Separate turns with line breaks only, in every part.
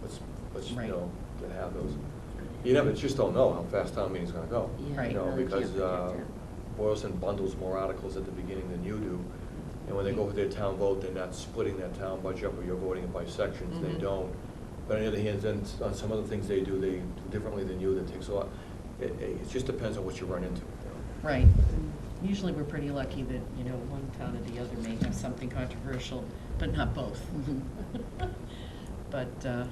let's, you
Right.
know, and have those. You never, just don't know how fast town meeting's gonna go.
Yeah,
you
Right.
know,
really can't
Because uh,
predict
Boylston bundles more articles at the beginning than you do. And when they go for their town vote, they're not splitting that town budget up, or you're voting it by sections, they
Mhm.
don't. But on the other hand, then s- on some other things they do, they do differently than you, that takes a lot. It, it it just depends on what you run into. you know.
Right. Usually, we're pretty lucky that, you know, one town or the other may have something controversial, but not both.
Mm-hmm.
But, uh,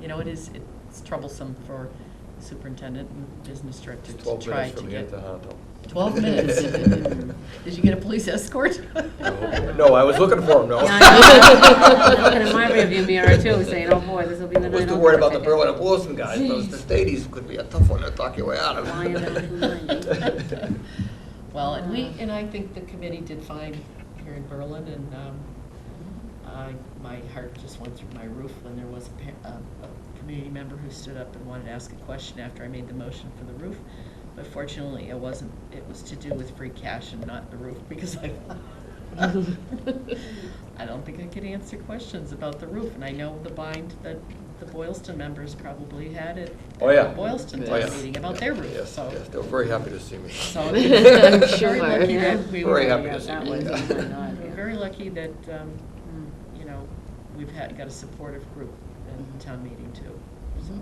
you know, it is, it's troublesome for superintendent and business director
It's
to
Twelve
try
minutes
to
from here
get.
to Hondo.
12 minutes. Did you get a police escort?
No, I was looking for him, no.
Yeah, I know. I'm looking in my rearview mirror too, saying, oh boy, this will be the
I
night.
was too
I'll
worried
never
about the
pick it.
Berlin and Boston guys, those the Stadies could be a tough one to talk your way out of.
Lion and the
Well, and we, and I think the committee did fine here in Berlin, and um, I, my heart just went through my roof when there was a, pa- a, a community member who stood up and wanted to ask a question after I made the motion for the roof. But fortunately, it wasn't, it was to do with free cash and not the roof, because I, I don't think I could answer questions about the roof, and I know the bind that the Boylston members probably had at
Oh, yeah.
Boylston
Oh, yeah.
meeting about their roof,
Yes,
so.
yes, they were very happy to see me.
So.
I'm
Very
sure.
lucky that we
Very
were,
happy to
Yeah,
see
that
you.
was
Yeah.
even not,
we're
yeah.
very lucky that, um,
Mm.
you know, we've had, got a supportive group at town meeting too, so.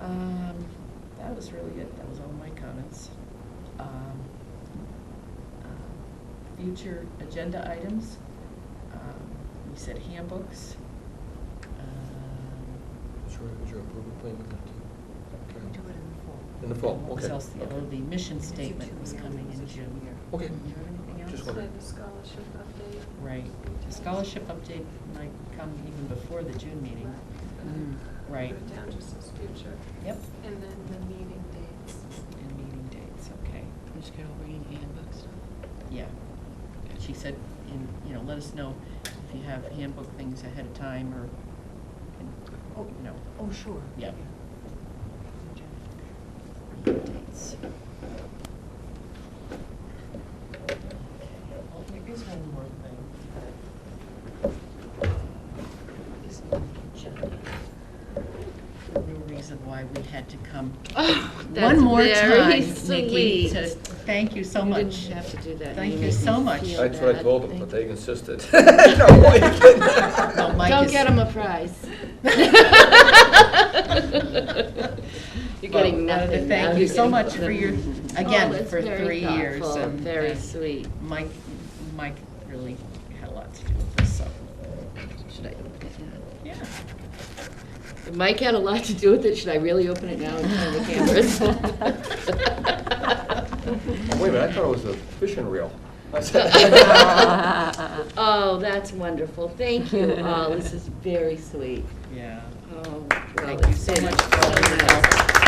Um, that was really it, that was all my comments. Um, uh, Future agenda items, um, we said handbooks. Um,
Is your, is your approval plan with that too?
Do it
In
in
the
the fall.
fall,
and What was
okay.
else, the, oh, the mission
It's a
statement was
two-year,
coming
it's
in
a
June.
two-year.
Okay.
Do you have anything else?
Just
It's
wondering.
the scholarship update.
Right, the scholarship update might come even before the June meeting.
Mm.
Right.
Mm-hmm. Put it down just as future,
Yep.
and then the meeting dates.
And meeting dates, okay,
Is Carol bringing handbooks?
yeah. She said, in, you know, let us know if you have handbook things ahead of time or,
Oh.
and, you know,
Oh, sure.
Yep. dates. Well, Oh, there is one more thing. Is on the agenda. The reason why we had to come
Oh,
One more time, Nikki,
sweet.
to, thank you so
You
much.
didn't have to do that.
Thank
You
you
made
so
me
much.
feel
That's what I
bad.
told them,
Thank
but
you.
they insisted. No, you kidding.
Well, Mike
Don't
is-
get him a prize. You're getting
Well, I wanted to
nothing.
Thank
I'm
you so
getting
much for your,
nothing. Oh,
again,
that's
for
very
three years.
thoughtful and
and- uh,
Very
and
sweet.
Mike, Mike really had a lot to do with this, so,
Should I open it now?
yeah.
If Mike had a lot to do with it. Should I really open it now in front of the cameras?
Wait a minute, I thought it was a fishing reel. I said-
Oh, that's wonderful. Thank you all. This is very sweet.
Yeah.
Oh, well,
Thank you
it's
so
been
much for all your
so nice.
help.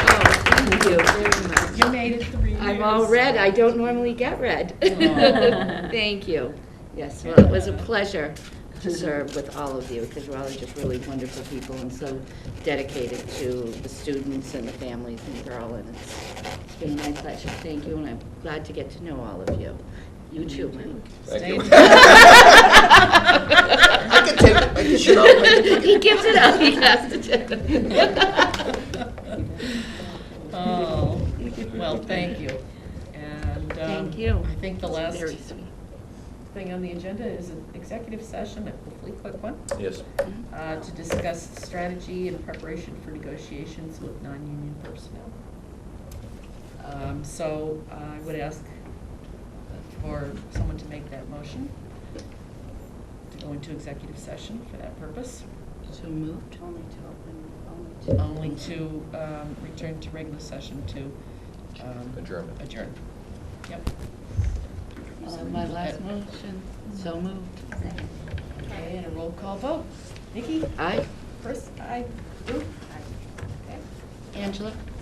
Oh, thank you very
You
much.
made it three years.
I'm all red, I don't normally get red.
Aw.
Thank you. Yes, well, it was a pleasure to serve with all of you, because we're all just really wonderful people and so dedicated to the students and the families in Berlin. It's it's been my pleasure, thank you, and I'm glad to get to know all of you. You too, Mike.
Thank you.
Stay in touch.
I can take, I can shut up.
He gives it up, he has to. do
Oh, well, thank you. And. um,
Thank you.
I think the
It's
last
Very sweet.
thing on the agenda is an executive session, a hopefully quick one,
Yes,
uh, to discuss strategy and preparation for negotiations with non-union personnel. Um, So I would ask for someone to make that motion, to go into executive session for that purpose,
So moved? Only to
only to um, return to regular session to um,
adjournment.
adjourn. Yep.
My last motion, so moved.
Okay, and a roll call vote. Nikki?
Aye.
Chris? Aye. Ruth? Aye. Okay.
Angela?